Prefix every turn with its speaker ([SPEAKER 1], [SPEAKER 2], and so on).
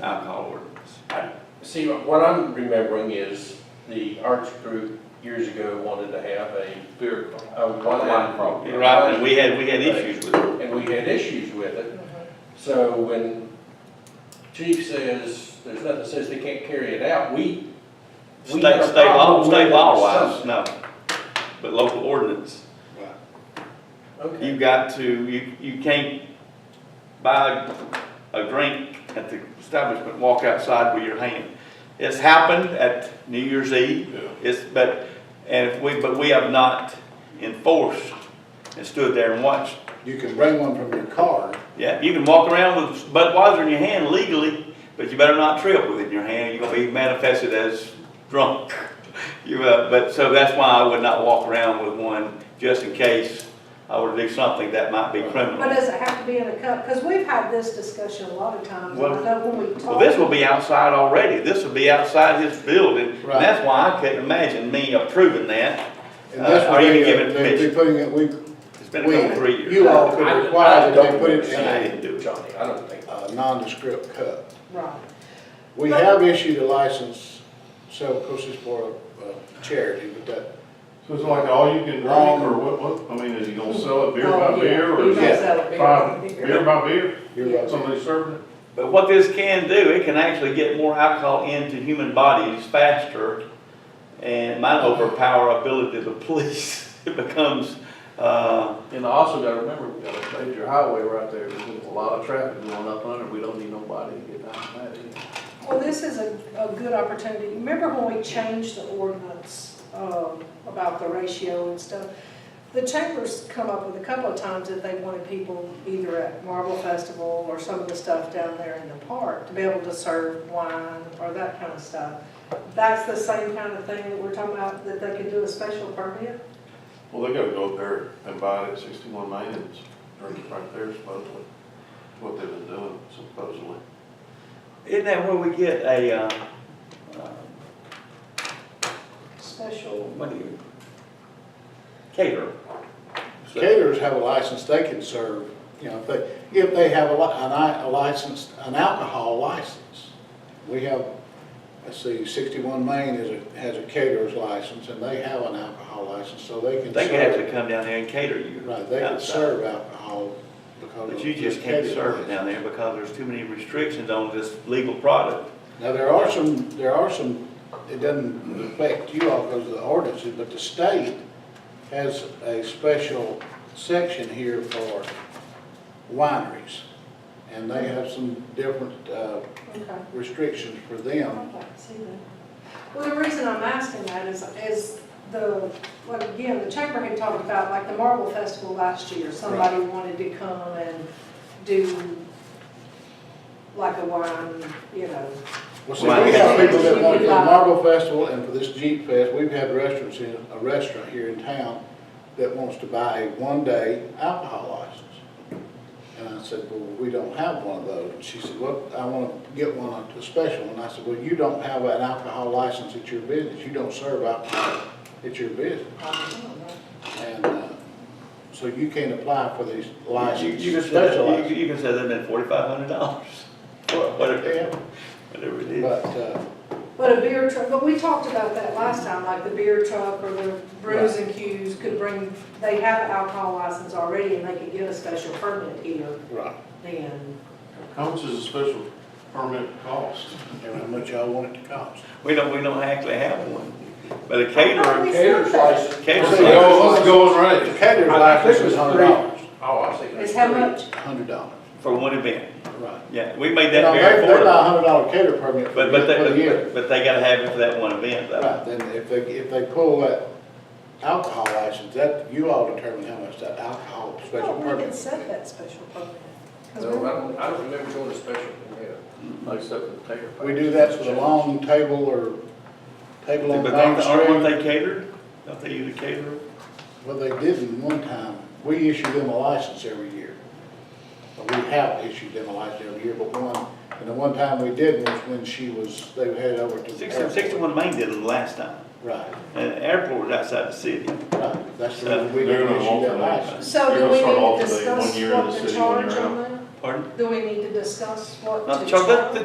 [SPEAKER 1] alcohol ordinance.
[SPEAKER 2] See, what I'm remembering is the arts group years ago wanted to have a,
[SPEAKER 1] Beer call.
[SPEAKER 2] a one-line program.
[SPEAKER 1] Oh, Right, and we had, we had issues with it.
[SPEAKER 2] And we had issues with it. So when chief says, there's nothing says they can't carry it out, we, We had
[SPEAKER 1] State,
[SPEAKER 2] a
[SPEAKER 1] state law,
[SPEAKER 2] problem
[SPEAKER 1] state
[SPEAKER 2] with
[SPEAKER 1] law
[SPEAKER 2] it.
[SPEAKER 1] wise, no. But local ordinance,
[SPEAKER 2] okay.
[SPEAKER 1] you got to, you, you can't buy a drink at the establishment, walk outside with your hand. It's happened at New Year's Eve, It's, but, and if we, but we have not enforced and stood there and watched.
[SPEAKER 3] You can bring one from your car.
[SPEAKER 1] Yeah, you can walk around with Budweiser in your hand legally, but you better not trip with it in your hand, you're gonna be manifested as drunk. You, uh, but, so that's why I would not walk around with one, just in case I were to do something that might be
[SPEAKER 4] But
[SPEAKER 1] criminal.
[SPEAKER 4] does it have to be in a cup? Because we've had this discussion a lot of times, and I
[SPEAKER 1] Well-
[SPEAKER 4] know when we talk.
[SPEAKER 1] Well, this will be outside already, this will be outside his building, and
[SPEAKER 3] Right.
[SPEAKER 1] that's why I couldn't imagine me approving that.
[SPEAKER 3] and
[SPEAKER 1] Uh,
[SPEAKER 3] that's what
[SPEAKER 1] are you
[SPEAKER 3] they,
[SPEAKER 1] giving
[SPEAKER 3] uh, they'd
[SPEAKER 1] permission?
[SPEAKER 3] be putting it, we,
[SPEAKER 1] It's been a couple, three
[SPEAKER 3] we,
[SPEAKER 1] years.
[SPEAKER 3] you all could require that they put it
[SPEAKER 1] I
[SPEAKER 3] in a
[SPEAKER 1] didn't do it.
[SPEAKER 2] Johnny, I don't think,
[SPEAKER 3] a nondescript cup.
[SPEAKER 4] Right.
[SPEAKER 3] We have issued a license, so of course it's for a charity, but that,
[SPEAKER 5] So it's like all you can drink, or what, what, I mean, is he gonna sell it beer by
[SPEAKER 4] Oh, yeah.
[SPEAKER 5] beer, or
[SPEAKER 4] You
[SPEAKER 5] is
[SPEAKER 4] don't
[SPEAKER 5] it
[SPEAKER 4] sell it beer
[SPEAKER 5] five,
[SPEAKER 4] by beer.
[SPEAKER 5] beer by beer?
[SPEAKER 3] you're right.
[SPEAKER 5] Somebody serving it?
[SPEAKER 1] But what this can do, it can actually get more alcohol into human bodies faster and might overpower ability of the police. It becomes, uh,
[SPEAKER 6] And I also gotta remember, we got a major highway right there, there's a lot of traffic going up under, we don't need nobody to get down that either.
[SPEAKER 4] Well, this is a, a good opportunity. Remember when we changed the ordinance, um, about the ratio and stuff? The chambers come up with a couple of times that they wanted people either at Marble Festival or some of the stuff down there in the park to be able to serve wine or that kind of stuff. That's the same kind of thing that we're talking about, that they could do a special permit?
[SPEAKER 5] Well, they gotta go up there and buy it at sixty-one Main and drink it right there supposedly, That's what they've been doing supposedly.
[SPEAKER 1] isn't that where we get a, uh, uh, oh,
[SPEAKER 4] Special
[SPEAKER 1] what do you, caterer?
[SPEAKER 3] Caterers have a license, they can serve, you know, if they, if they have a li, an i- a license, an alcohol license. We have, let's see, sixty-one Maine is a, has a caterer's license, and they have an alcohol license, so they can serve.
[SPEAKER 1] They could actually come down there and cater you.
[SPEAKER 3] Right, they can
[SPEAKER 1] outside.
[SPEAKER 3] serve alcohol because of.
[SPEAKER 1] But you
[SPEAKER 3] the
[SPEAKER 1] just can't
[SPEAKER 3] catering
[SPEAKER 1] serve it
[SPEAKER 3] license.
[SPEAKER 1] down there because there's too many restrictions on this legal product.
[SPEAKER 3] Now, there are some, there are some, it doesn't affect you all because of the ordinances, but the state has a special section here for wineries. And they have some different, uh,
[SPEAKER 4] Okay.
[SPEAKER 3] restrictions for them.
[SPEAKER 4] I'd like to see that. Well, the reason I'm asking that is, is the, like, again, the chamber had talked about, like, the Marble Festival last year, somebody wanted to come and do like a wine, you know,
[SPEAKER 3] Well, see, we have
[SPEAKER 4] Right.
[SPEAKER 3] people that want to do the Marble Festival and for this Jeep Fest, we've had restaurants in, a restaurant here in town that wants to buy a one-day alcohol license. And I said, well, we don't have one of those. And she said, well, I want to get one, a special one. I said, well, you don't have an alcohol license at your business. You don't serve alcohol at your business.
[SPEAKER 4] I don't know.
[SPEAKER 3] And, uh, so you can't apply for these
[SPEAKER 1] You,
[SPEAKER 3] licenses,
[SPEAKER 1] you can say,
[SPEAKER 3] special
[SPEAKER 1] that- you
[SPEAKER 3] licenses.
[SPEAKER 1] you can say that meant forty-five hundred dollars, whatever,
[SPEAKER 3] Yeah,
[SPEAKER 1] whatever it is.
[SPEAKER 3] But, uh,
[SPEAKER 4] But a beer truck, but we talked about that last time, like the beer truck or the brews and cues could bring, they have alcohol license already and they could get a special permit here
[SPEAKER 3] right,
[SPEAKER 4] then.
[SPEAKER 5] How much is a special permit cost?
[SPEAKER 3] and how much y'all want it to cost.
[SPEAKER 1] We don't, we don't actually have one, but a
[SPEAKER 4] Oh,
[SPEAKER 1] caterer,
[SPEAKER 4] we said
[SPEAKER 2] Caterer's
[SPEAKER 4] that.
[SPEAKER 2] license.
[SPEAKER 1] caterer's
[SPEAKER 3] Okay.
[SPEAKER 1] like,
[SPEAKER 5] Oh, let's go and
[SPEAKER 3] The
[SPEAKER 5] rate.
[SPEAKER 3] caterer's license is hundred dollars.
[SPEAKER 2] oh, I see.
[SPEAKER 4] It's how much?
[SPEAKER 3] Hundred dollars,
[SPEAKER 1] for one event,
[SPEAKER 3] right.
[SPEAKER 1] yeah, we made
[SPEAKER 3] Now,
[SPEAKER 1] that
[SPEAKER 3] they,
[SPEAKER 1] very
[SPEAKER 3] they buy a
[SPEAKER 1] affordable.
[SPEAKER 3] hundred dollar cater permit for,
[SPEAKER 1] But, but
[SPEAKER 3] for the
[SPEAKER 1] they,
[SPEAKER 3] year.
[SPEAKER 1] but they gotta have it for that one event, though.
[SPEAKER 3] Right, then if they, if they pull that alcohol license, that, you all determine how much that alcohol special
[SPEAKER 4] Oh, we
[SPEAKER 3] permit.
[SPEAKER 4] had said that special permit. 'cause
[SPEAKER 2] No,
[SPEAKER 4] we-
[SPEAKER 2] I don't, I don't remember doing a special, yeah.
[SPEAKER 6] Except for the tater.
[SPEAKER 3] We do that for the long table or table on
[SPEAKER 1] But don't-
[SPEAKER 3] Main
[SPEAKER 1] aren't
[SPEAKER 3] Street.
[SPEAKER 1] they catered? Don't they use a caterer?
[SPEAKER 3] Well, they didn't one time. We issue them a license every year. But We have issued them a license every year, but one, and the one time we did was when she was, they headed over to. the
[SPEAKER 1] Six-
[SPEAKER 3] airport.
[SPEAKER 1] 61 Main did it last time,
[SPEAKER 3] Right,
[SPEAKER 1] and the airport was outside the city.
[SPEAKER 3] right. That's the reason we
[SPEAKER 5] They're
[SPEAKER 3] didn't
[SPEAKER 5] gonna
[SPEAKER 3] issue that
[SPEAKER 5] alternate.
[SPEAKER 3] license.
[SPEAKER 4] So
[SPEAKER 5] You're
[SPEAKER 4] do
[SPEAKER 5] gonna
[SPEAKER 4] we
[SPEAKER 5] start
[SPEAKER 4] need
[SPEAKER 5] off
[SPEAKER 4] to
[SPEAKER 5] with a one
[SPEAKER 4] discuss
[SPEAKER 5] year in the
[SPEAKER 4] what to
[SPEAKER 5] city, one
[SPEAKER 4] charge
[SPEAKER 5] year out.
[SPEAKER 4] on that?
[SPEAKER 1] Pardon?
[SPEAKER 4] Do we need to discuss what
[SPEAKER 1] Not
[SPEAKER 4] to
[SPEAKER 1] charge,
[SPEAKER 4] charge?
[SPEAKER 1] that,